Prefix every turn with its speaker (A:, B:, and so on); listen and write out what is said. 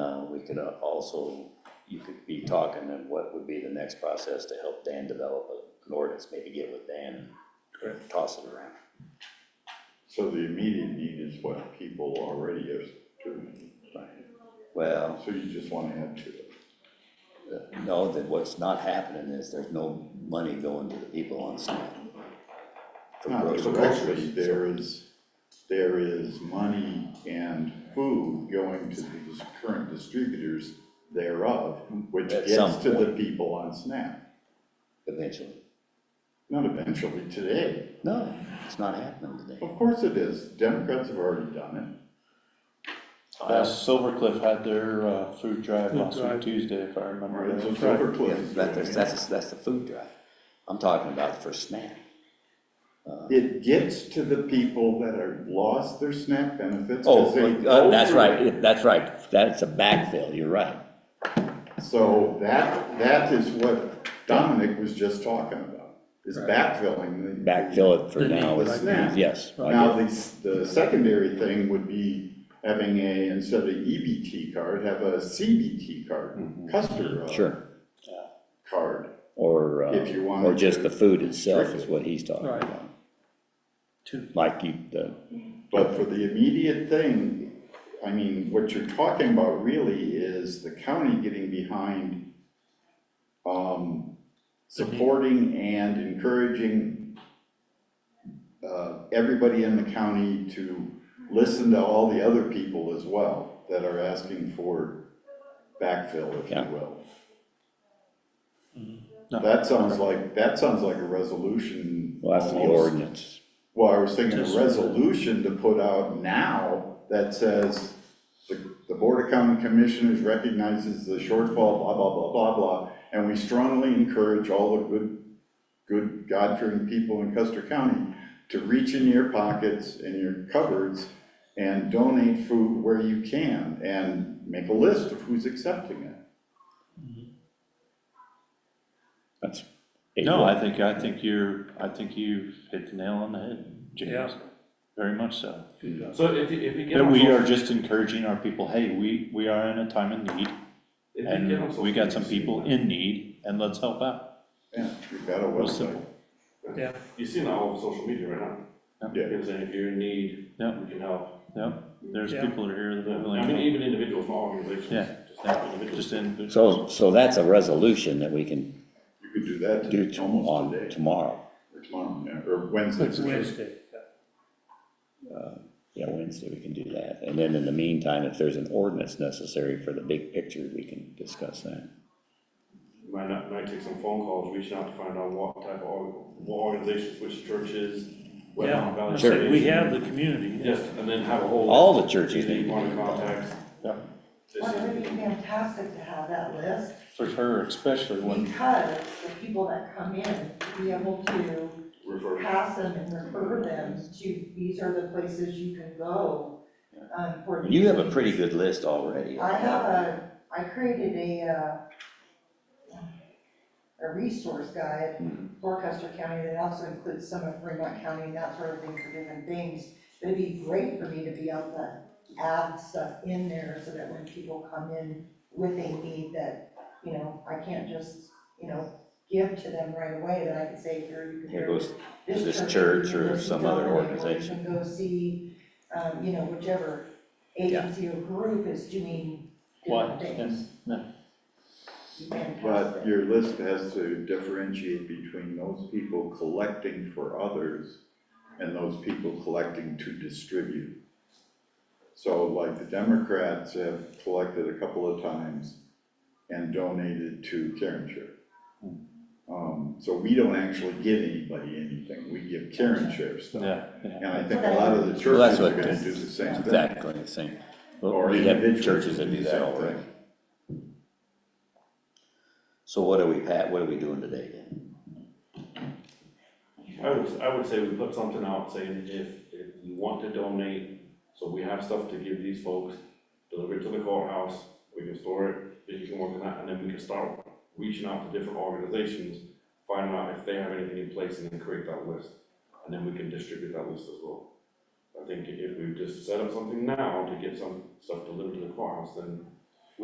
A: Uh, could also, you could be talking and what would be the next process to help Dan develop an ordinance, maybe get with Dan, and toss it around.
B: So the immediate need is what people already have determined.
A: Right. Well,
B: So you just wanna add to it.
A: uh, no, that what's not happening is there's no money going to the people on SNAP. for
B: Not
A: grocery
B: directly,
A: stores.
B: there is, there is money and food going to the current distributors thereof, which
A: At some
B: gets to the
A: point.
B: people on SNAP.
A: Eventually.
B: Not eventually, today.
A: No, it's not happening today.
B: Of course it is. Democrats have already done
C: Uh, Silver Cliff had their, uh, food drive
D: Food
C: last week
D: drive.
C: Tuesday, if I
B: it. Or
C: remember.
B: it's a
C: that.
B: silver
A: Yeah,
B: cliff. is
A: that's,
B: doing it.
A: that's, that's the food drive. I'm talking about for SNAP.
B: It gets to the people that are lost their SNAP benefits. 'cause
A: Oh,
B: they
A: uh, that's
B: over-
A: right, that's right, that's a backfill, you're right.
B: So that, that is what Dominic was just talking about, is
A: Right.
B: backfilling the.
A: Backfill it for
D: The need,
A: now, is-
D: like
B: that.
A: yes. I
B: Now,
A: get-
B: the, s- the secondary thing would be having a, instead of EBT card, have a CBT card, customer uh,
A: Sure,
B: card.
A: or, uh,
B: If you wanted
A: or just
B: to
A: the food itself is
B: restrict
A: what he's talking
D: Right.
A: about.
D: Two.
A: Like you, the,
B: But for the immediate thing, I mean, what you're talking about really is the county getting behind um, supporting and encouraging uh, everybody in the county to listen to all the other people as well that are asking for backfill, if you
A: Yeah.
B: will.
C: No.
B: That sounds like, that sounds like a resolution.
A: well, that's the
B: almost.
A: ordinance.
B: Well, I was thinking a
D: Just-
B: resolution to put out now that says, the, the Board of County Commissioners recognizes the shortfall, blah, blah, blah, blah, blah, and we strongly encourage all the good, good God-fearing people in Custer County to reach in your pockets and your cupboards and donate food where you can, and make a list of who's accepting it.
A: That's.
C: No, I think, I think you're, I think you've hit the nail on the head, James.
D: Yeah.
C: Very much so.
E: So if you, if you get
C: That
E: on
C: we are
E: social,
C: just encouraging our people, hey, we, we are in a time of need,
E: if you get on
C: and
E: social.
C: we got some
E: media,
C: people in need, and let's help out.
B: Yeah, we've got a
C: Real
B: website.
C: simple.
D: Yeah,
E: You see that all over social media right now.
B: Yeah.
E: People saying if you're in need,
C: Yeah.
E: we can help.
C: Yep, there's
D: Yeah.
C: people that are here that are
E: I mean,
C: willing,
E: even individuals, not organizations.
C: Yeah,
E: just
C: to-
E: individuals.
C: just in.
A: So, so that's a resolution that we can
B: You could do that
A: do
B: to-
A: to-
B: almost
A: on
B: today,
A: tomorrow,
B: or tomorrow, yeah, or Wednesday.
D: it's Wednesday.
A: yeah, Wednesday, we can do that. And then in the meantime, if there's an ordinance necessary for the big picture, we can discuss that.
E: Might not, might take some phone calls, reaching out to find out what type of, org- what organizations, which churches, what.
D: Yeah, I
E: values
A: Sure.
D: said, we
E: they-
D: have the community.
E: Yes, and then have a whole.
A: All
E: list
A: the churches
E: of people
A: need
E: You
A: to
E: wanna
A: be involved.
E: contact.
C: Yeah.
E: This
F: Well, it would
E: is-
F: be fantastic to have that list,
C: For her especially, when,
F: because the people that come in, to be able to
E: Refer.
F: pass them and refer them to, these are the places you can go, um, for.
A: You have a
F: these
A: pretty
F: things."
A: good list already.
F: I have a, I created a, uh, a resource guide
A: Hmm.
F: for Custer County that also includes some of Fremont County and that sort of thing for different things. But it'd be great for me to be able to add stuff in there so that when people come in with a need that, you know, I can't just, you know, give to them right away, that I can say, here, you can.
A: Here
F: go
A: goes
F: to
A: this church
F: you can
A: or
F: go see
A: some other
F: Dominic, or you
A: organization.
F: can go see, um, you know, whichever agency or group is doing
C: why,
F: different things. You can pass
B: But
F: it.
B: your list has to differentiate between those people collecting for others and those people collecting to distribute. So like the Democrats have collected a couple of times and donated to Karen Share. Um, so we don't actually give anybody anything, we give Karen Share stuff.
C: yeah, yeah.
B: And I think a lot of the
A: Well, that's
B: churches are
A: what,
B: gonna do the same thing.
A: exactly, the same. Well,
B: Or
A: We have
B: individuals
A: churches that do that
B: same
A: already.
B: thing.
A: So what are we, Pat, what are we doing today then?
E: I would, I would say we put something out saying if, if you want to donate, so we have stuff to give these folks, deliver it to the courthouse, we can store it, if you can work on that, and then we can start reaching out to different organizations, finding out if they have anything in place and then create that list, and then we can distribute that list as well. I think if we just set up something now to get some stuff delivered to the courthouse, then